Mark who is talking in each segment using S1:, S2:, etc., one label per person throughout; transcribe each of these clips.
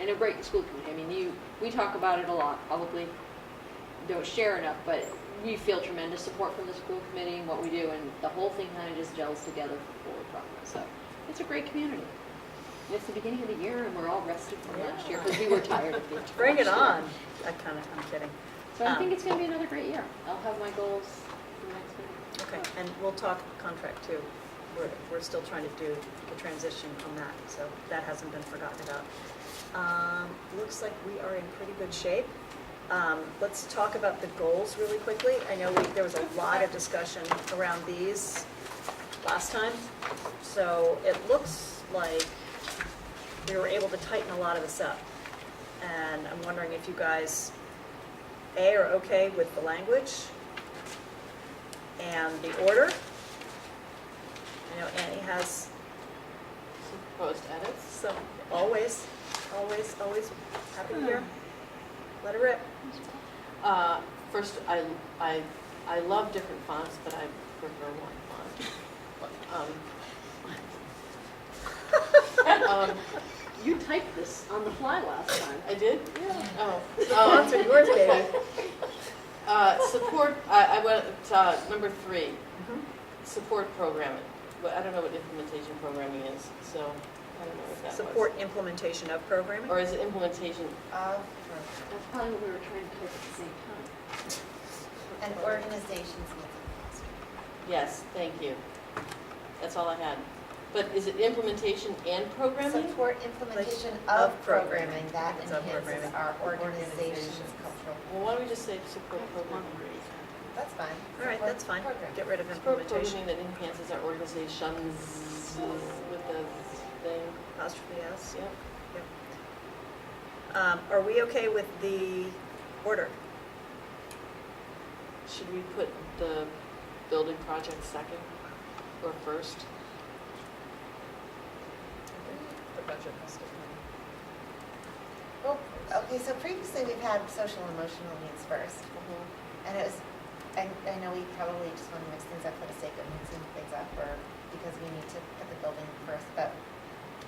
S1: and it'll break the school committee. I mean, you, we talk about it a lot, probably don't share enough, but we feel tremendous support from the school committee and what we do, and the whole thing kind of just gels together for forward progress. So it's a great community. And it's the beginning of the year, and we're all rested from last year because we were tired of being.
S2: Bring it on. Um, I kind of, I'm kidding.
S1: So I think it's going to be another great year. I'll have my goals for next year.
S2: Okay, Uh, and we'll talk contract too. We're, we're still trying to do the transition on that, so that hasn't been forgotten about. Um, Looks like we are in pretty good shape. Um, Let's talk about the goals really quickly. I know we- there was a lot of discussion around these last time, so it looks like we were able to tighten a lot of this up. And I'm wondering if you guys, A, are okay with the language? and the order. I know Annie has
S3: Proposed edits?
S2: some, always, always, always happy here. Let her rip.
S3: Uh, First, I, I, I love different fonts, but I prefer one font. Um, um,
S1: You typed this on the fly last time.
S3: I did?
S1: Yeah.
S3: Oh.
S2: Lots
S3: um,
S2: of yours, baby.
S3: uh, Support, I, I went, uh, number three, support programming. Well, I don't know what implementation programming is, so I don't know what that was.
S2: Support implementation of programming.
S3: Or is it implementation?
S4: of
S1: That's probably what we were trying to type at the same time.
S4: an organization's meeting.
S3: Yes, thank you. That's all I had. But is it implementation and programming?
S4: Support implementation of
S2: Of programming.
S4: programming that
S2: It's of
S4: enhances
S2: programming.
S4: our organization's cultural.
S3: Well, why don't we just say support programming?
S4: That's fine.
S2: All right,
S4: Support
S2: that's fine.
S4: programming.
S2: Get rid of
S3: Support
S2: implementation.
S3: programming that enhances our organizations with the thing,
S2: Apostrophe S.
S3: yep.
S2: Um, Are we okay with the order?
S3: Should we put the building project second or first?
S2: The budget must have
S4: Well, Oh, okay, so previously we've had social emotional needs first,
S2: Mm-hmm.
S4: and it was, I, I know we probably just want to mix things up for the sake of mixing things up, or because we need to put the building first, but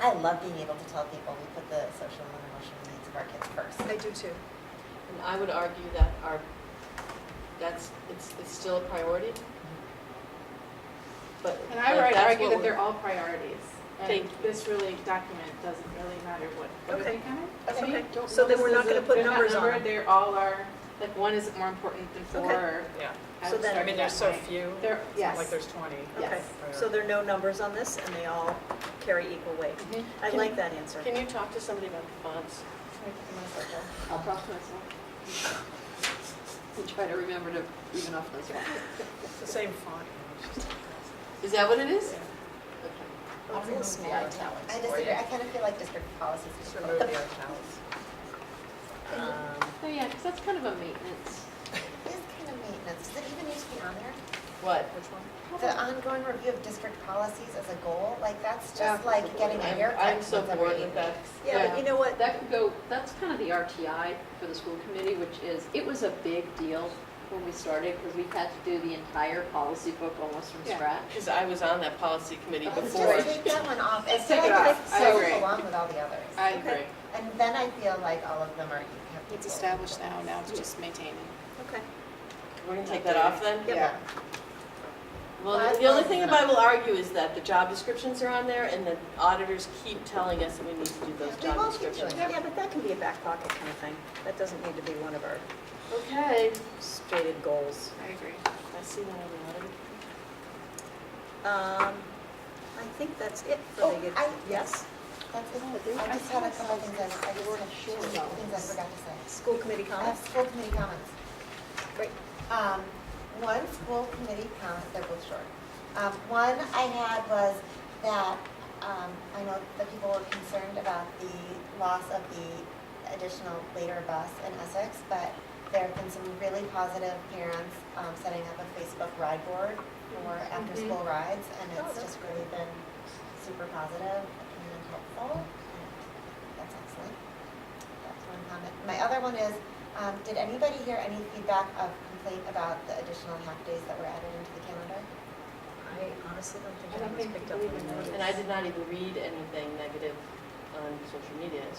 S4: I love being able to tell people we put the social and emotional needs of our kids first.
S2: I do too.
S3: And I would argue that our, that's, it's, it's still a priority. But.
S5: And I
S3: but
S5: would
S3: that's
S5: argue
S3: what
S5: that
S3: we're-
S5: they're all priorities.
S3: Thank
S5: And
S3: you.
S5: this really document doesn't really matter what, what do
S2: Okay.
S5: you think on it?
S4: Okay.
S2: Okay,
S5: Don't-
S2: so then
S5: this
S2: we're not
S5: is a-
S2: going to put
S5: they're not
S2: numbers on
S5: numbered,
S2: them.
S5: They're all are, like, one isn't more important than four.
S2: Okay.
S5: or
S6: Yeah,
S5: I
S2: So
S5: would
S2: then-
S5: start
S6: I mean,
S5: that
S6: there's so
S5: way.
S6: few, it's
S5: There,
S6: not
S5: yes.
S6: like there's 20.
S2: Okay, so there are no numbers on this, and they all carry equal weight.
S3: Mhm.
S2: I
S3: Can-
S2: like that answer.
S3: Can you talk to somebody about the fonts?
S1: I'll talk to myself. And try to remember to even off those ones.
S6: It's the same font.
S3: Is that what it is?
S6: Yeah.
S3: Okay.
S2: Oh, it's a little smaller.
S4: I disagree, I kind of feel like district policies.
S6: Just
S4: would-
S6: remove the
S4: the-
S6: italics.
S2: Um,
S1: So yeah, because that's kind of a maintenance.
S4: It is kind of maintenance, does it even need to be on there?
S3: What?
S6: Which one?
S4: The ongoing review of district policies as a goal, like, that's just
S1: Yeah.
S4: like getting a
S3: I'm-
S4: haircut
S3: I'm
S4: once
S3: so
S4: every
S3: bored
S4: eight
S3: with that.
S4: weeks.
S2: Yeah, but you know what?
S1: That could go, that's kind of the RTI for the school committee, which is, it was a big deal when we started because we had to do the entire policy book almost from
S5: Yeah.
S1: scratch.
S3: Because I was on that policy committee
S1: Oh,
S4: Let's
S3: before.
S4: just take that one off,
S5: Let's
S4: it's
S5: take
S4: like,
S5: it
S4: like
S5: off. I
S4: so
S5: agree.
S4: along with all the others.
S5: I agree.
S4: And then I feel like all of them are.
S7: It's established now, now it's just maintaining.
S2: Okay.
S3: We're gonna take that off then?
S2: Yep.
S4: Yeah,
S3: Well, the- the only thing that I will argue is that the job descriptions are on there and the auditors keep telling us that we need to do those
S4: We will
S3: job
S4: keep doing
S3: descriptions.
S2: Yeah, but that can be a back pocket kind of thing. That doesn't need to be one of our
S3: Okay,
S2: stated goals.
S7: I agree.
S3: I see that everybody.
S2: Um, I think that's it for
S4: Oh,
S2: the,
S4: I-
S2: yes,
S4: that's it. I just had a couple things I, I just had two things I forgot to say.
S2: school committee
S4: I have
S2: comments?
S4: Uh, school committee comments.
S2: Great.
S4: Um, one school committee comment, they're both short. Um, one I had was that, um, I know that people were concerned about the loss of the additional later bus in Essex, but there have been some really positive parents, um, setting up a Facebook ride board for after-school rides,
S2: Mm-hmm. Oh,
S4: and it's
S2: that's
S4: just really been super positive and helpful. and That's excellent. That's one comment. My other one is, um, did anybody hear any feedback of complaint about the additional half days that were added into the calendar?
S2: I honestly don't
S5: I
S2: think
S5: don't
S2: anyone's
S5: think
S2: picked up
S5: we even
S2: on that.
S5: noticed.
S3: And I did not even read anything negative on social media,